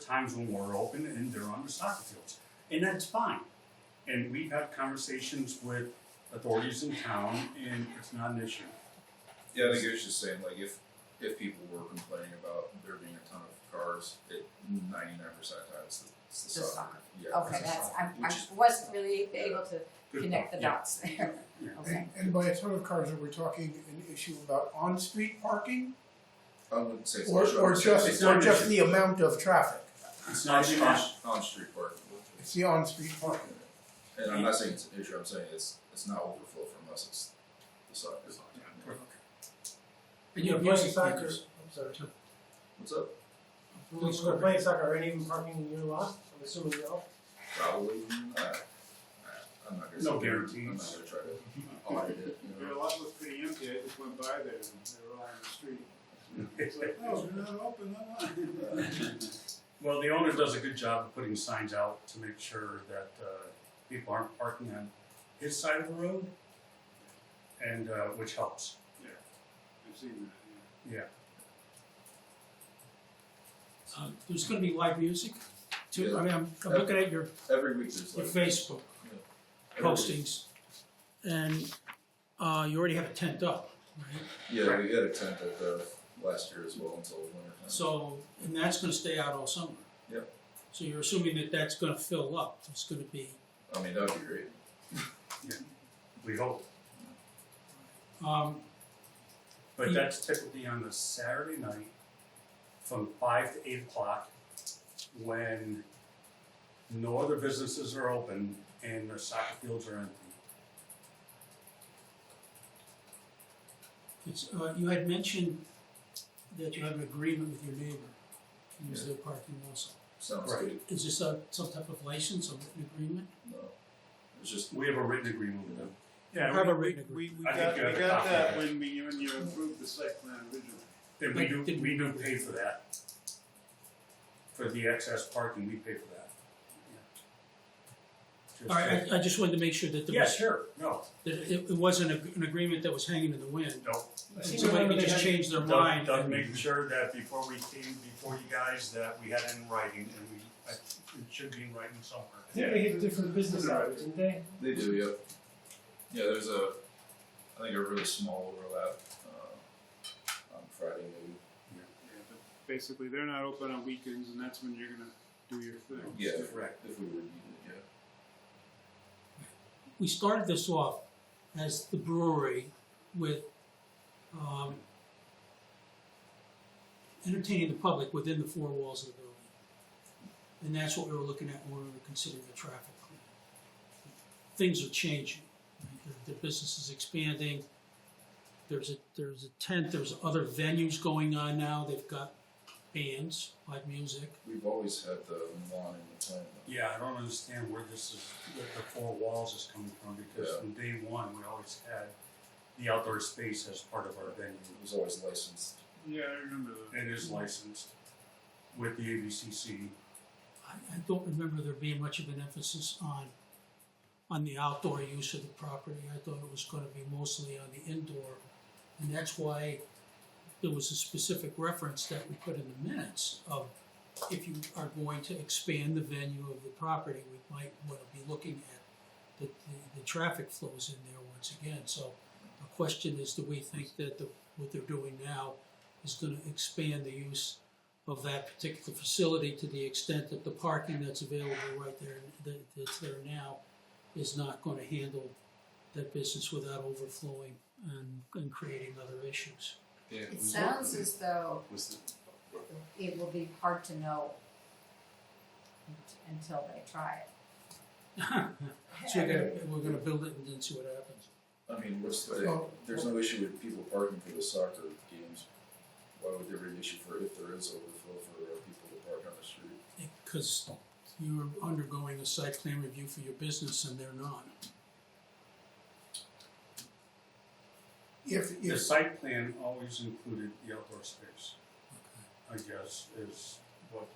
times when we're open and they're on the soccer fields. And that's fine. And we've had conversations with authorities in town and it's not an issue. Yeah, I think it was just saying like if if people were complaining about there being a ton of cars, it ninety nine percent of the time it's the, it's the The soccer. soccer. Yeah, Okay, it's the that's, soccer, I, which I is- wasn't really able to Good connect the point. Yeah. dots there. Yeah. Okay, And, and by a ton of cars, are we talking an issue about on-street parking? I wouldn't say it's Or, an issue. or It's just, not or an just issue. the amount of traffic? It's on, not an issue. on, on street parking. It's the on-street parking. And I'm not saying it's an issue. I'm saying it's it's not overflow from us. It's the soccer. And you're You're playing playing soccer, sneakers. I'm sorry, What's up? when you're playing soccer, are any of them parking in your lot? I'm assuming no. Probably. I, I, I'm not gonna. No say- I'm not guarantees. gonna try to audit it. You Their know? lot was pretty empty, I just went by there and they were all on the street. It's like, oh, they're not open, I'm on. Well, the owner does a good job of putting signs out to make sure that uh, people aren't parking on his side of the road, and uh, which helps. I've seen that, Uh, There's gonna be live music too, I mean, I'm, I'm Yeah. looking at your, Every week there's your like Facebook every week- postings. And, uh, you already have a tent up, right? Yeah, we had a tent at the last year as well until winter time. So, and that's gonna stay out all summer. Yep. So you're assuming that that's gonna fill up, it's gonna be, I mean, that'd be great. We hope, um, but Yeah. that's typically on the Saturday night from five to eight o'clock, when no other businesses are open and the soccer fields are empty. it's, uh, you had mentioned that you have an agreement with your neighbor to use their parking also. Sounds Right. good. Is this a, some type of license or an agreement? No, it's just We have a written agreement with them. yeah. Have we- a written agreement. We, we I think got, you have we a got copy of that it. when we, when you approved the site plan originally. And we do, Wait, did- we do pay for that. For the excess parking, we pay for that. Just- All right, I, I just wanted to make sure that there Yeah, was, sure, no, that it, it wasn't a- an agreement that was hanging in the wind. no. Somebody could just change their Doug, mind. Doug and- made sure that before we came, before you guys, that we had it in writing, and we, I- it should be in writing somewhere. I think they have different business hours, didn't they? they do. Yep. Yeah, there's a I think a really small overlap uh, on Friday maybe. Yeah, but Basically, they're not open on weekends and that's when you're gonna do your thing. Yeah, if, Correct. if we were needed. Yeah. we started this off as the brewery with um, entertaining the public within the four walls of the building. And that's what we were looking at when we were considering the traffic. plan. Things are changing. right? The, the business is expanding. There's a there's a tent. There's other venues going on now. They've got bands, live music. We've always had the lawn in the plant. Yeah, I don't understand where this is, where the four walls is coming from, because Yeah. from day one, we always had the outdoor space as part of our venue. It was always licensed. Yeah, I remember that. It is licensed with the ABCC. I, I don't remember there being much of an emphasis on, on the outdoor use of the property. I thought it was gonna be mostly on the indoor. And that's why there was a specific reference that we put in the minutes of if you are going to expand the venue of the property, we might wanna be looking at the, the, the traffic flows in there once again. So the question is, do we think that the, what they're doing now is gonna expand the use of that particular facility to the extent that the parking that's available right there, that, that's there now, is not going to handle that business without overflowing and, and creating other issues. it sounds as though it will be hard to know until they try it. So we're gonna, we're gonna build it and then see what happens. I mean, what's the? Well- there's no issue with people parking for the soccer games. Why would there be an issue for if there is overflow for uh, people to park on the street? Because you're undergoing a site plan review for your business and they're not. If, The if, site plan always included the outdoor space, I guess, is what,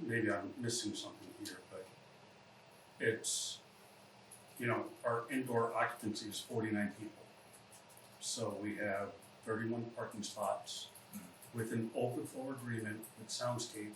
maybe I'm missing something here, but it's, you know, our indoor occupancy is forty-nine people. So we Hmm. have thirty-one parking spots with an open floor agreement with Soundscape